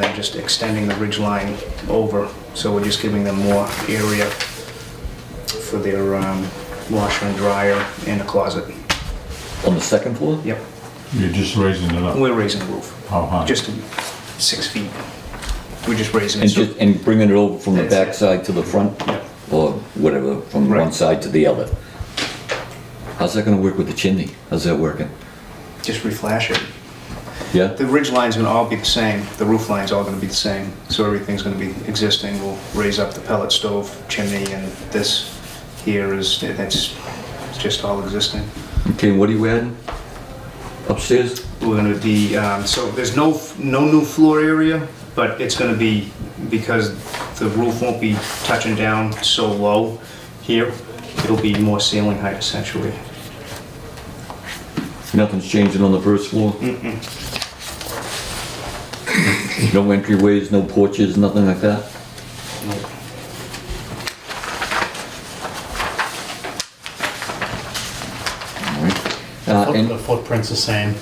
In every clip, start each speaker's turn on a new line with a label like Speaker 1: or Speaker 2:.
Speaker 1: then just extending the ridge line over. So we're just giving them more area for their um, washer and dryer and a closet.
Speaker 2: On the second floor?
Speaker 1: Yep,
Speaker 3: You're just raising it
Speaker 2: Mm.
Speaker 3: up.
Speaker 1: we're raising the roof,
Speaker 3: How high?
Speaker 1: just six feet. We're just raising it.
Speaker 2: And
Speaker 1: so-
Speaker 2: just, and bringing it over from the
Speaker 1: That's it.
Speaker 2: backside to the front?
Speaker 1: Yep.
Speaker 2: Or whatever, from
Speaker 1: Right.
Speaker 2: one side to the other? How's that gonna work with the chimney? How's that working?
Speaker 1: Just reflash it.
Speaker 2: Yeah?
Speaker 1: The ridge line's gonna all be the same, the roof line's all gonna be the same, so everything's gonna be existing, we'll raise up the pellet stove chimney, and this here is, that's, it's just all existing.
Speaker 2: Okay, what are you adding? Upstairs?
Speaker 1: We're gonna be, um, so there's no, no new floor area, but it's gonna be, because the roof won't be touching down so low here, it'll be more ceiling height essentially.
Speaker 2: Nothing's changing on the first floor? No entryways, no porches, nothing like that? All right. Uh,
Speaker 4: Foot-
Speaker 2: and-
Speaker 4: The footprint's the same.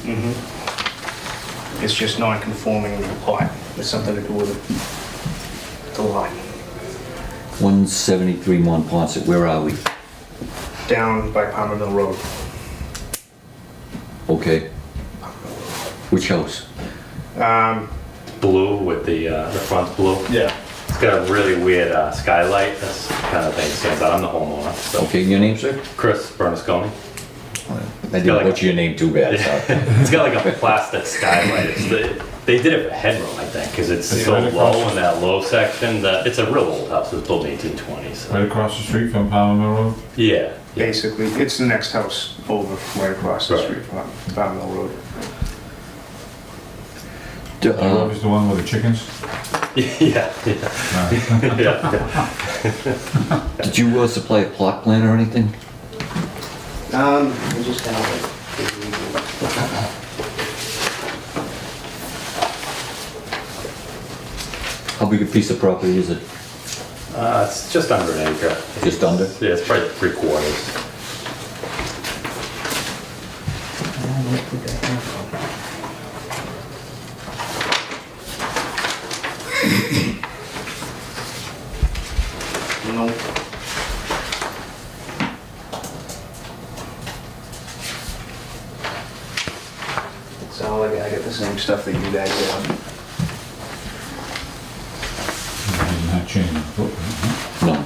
Speaker 1: It's just non-conforming with the lot, it's something to do with the- the lot.
Speaker 2: 173 Monpont, where are we?
Speaker 1: Down by Palmer Mill Road.
Speaker 2: Okay. Which house?
Speaker 5: blue with the, uh, the front's blue.
Speaker 1: Yeah.
Speaker 5: It's got a really weird uh, skylight. This kind of thing stands out. I'm the homeowner. So
Speaker 2: Okay, your name, sir?
Speaker 5: Chris Bernasconi.
Speaker 2: I didn't butcher your name too bad, sorry.
Speaker 5: It's got like a plastic skylight. It's the, they did it for headroom, I think, because it's so
Speaker 3: right across
Speaker 5: low in that low section that it's a real old house. It was built in 1820s.
Speaker 3: Right across the street from Palmer Mill Road?
Speaker 5: Yeah. yeah.
Speaker 1: Basically, it's the next house over, right across the
Speaker 5: Right.
Speaker 1: street from Palmer Mill Road.
Speaker 2: D-
Speaker 3: That
Speaker 2: uh,
Speaker 3: was the one with the chickens?
Speaker 5: yeah. Yeah. yeah.
Speaker 2: Did you uh, supply a plot plan or anything?
Speaker 1: Um, I just have it.
Speaker 2: How big a piece of property is it?
Speaker 5: Uh, it's just under an acre.
Speaker 2: Just under?
Speaker 5: Yeah, it's probably three quarters.
Speaker 1: No, sound like I get the same stuff that you guys have.
Speaker 3: Doesn't that change the footprint, huh?
Speaker 2: No.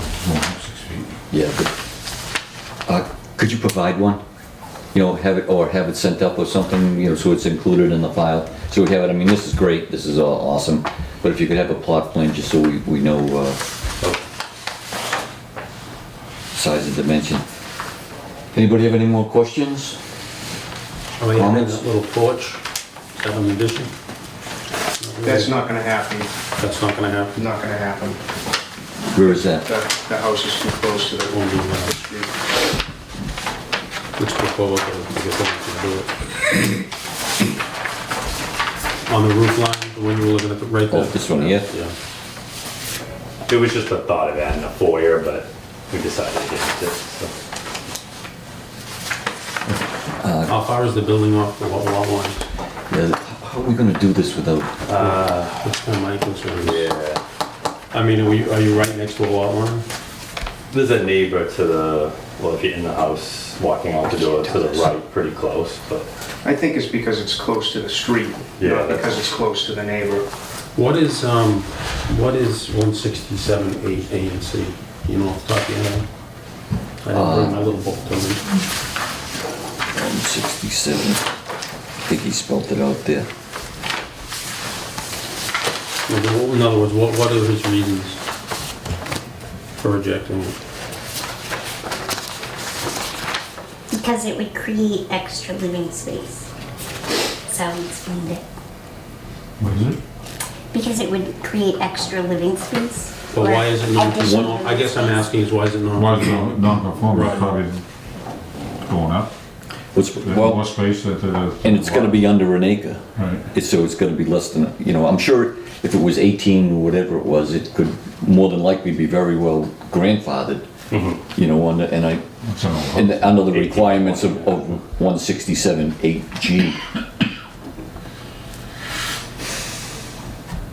Speaker 3: It's more than six feet.
Speaker 2: Yeah, but, uh, could you provide one? You know, have it, or have it sent up or something, you know, so it's included in the file? So we have it, I mean, this is great, this is all awesome, but if you could have a plot plan just so we, we know, uh, size and dimension. Anybody have any more questions?
Speaker 6: Are
Speaker 2: Oh,
Speaker 6: we having
Speaker 2: Comments?
Speaker 6: that little porch, seven edition?
Speaker 1: That's not gonna happen,
Speaker 6: That's not gonna happen.
Speaker 1: not gonna happen.
Speaker 2: Where is that?
Speaker 1: The, the house is too close to
Speaker 6: Won't
Speaker 1: the
Speaker 6: be, uh,
Speaker 1: street.
Speaker 6: Which before, okay, I guess I can do it. On the roof line, the one you were looking at, right there?
Speaker 2: Oh, this one here?
Speaker 6: Yeah.
Speaker 5: It was just a thought of adding a foyer, but we decided against it. So.
Speaker 6: How far is the building off the lot lot line?
Speaker 2: Yeah, How are we gonna do this without,
Speaker 6: That's kind of my concern.
Speaker 5: Yeah.
Speaker 6: I mean, are you, are you right next to a lot line?
Speaker 5: There's a neighbor to the, well, if you're in the house, walking out the door to the right, pretty close, but
Speaker 1: I think it's because it's close to the street,
Speaker 5: Yeah,
Speaker 1: not
Speaker 5: that's-
Speaker 1: because it's close to the neighbor.
Speaker 6: What is, um, what is one sixty-seven eight A and C? You know, off the top of your head? I didn't
Speaker 2: Uh,
Speaker 6: bring my little book to me.
Speaker 2: um, sixty-seven? I think he spelled it out there.
Speaker 6: Well, the- In other words, what, what are his reasons for rejecting it?
Speaker 7: Because it would create extra living space. So he explained it.
Speaker 3: What is it?
Speaker 7: Because it would create extra living space.
Speaker 6: But
Speaker 7: or
Speaker 6: why is it not,
Speaker 7: additional
Speaker 6: non- I guess I'm
Speaker 7: living
Speaker 6: asking is why is it not?
Speaker 3: Why is it non-conforming? It's
Speaker 6: Right.
Speaker 3: Probably going up.
Speaker 2: What's,
Speaker 3: There's more
Speaker 2: well,
Speaker 3: space that the.
Speaker 2: and it's gonna be under an acre.
Speaker 3: Right.
Speaker 2: It's, so it's gonna be less than, you know, I'm sure if it was eighteen or whatever it was, it could more than likely be very well grandfathered. You know, under, and I,
Speaker 3: It's an old
Speaker 2: and
Speaker 3: house.
Speaker 2: under the requirements of, of one sixty-seven eight G.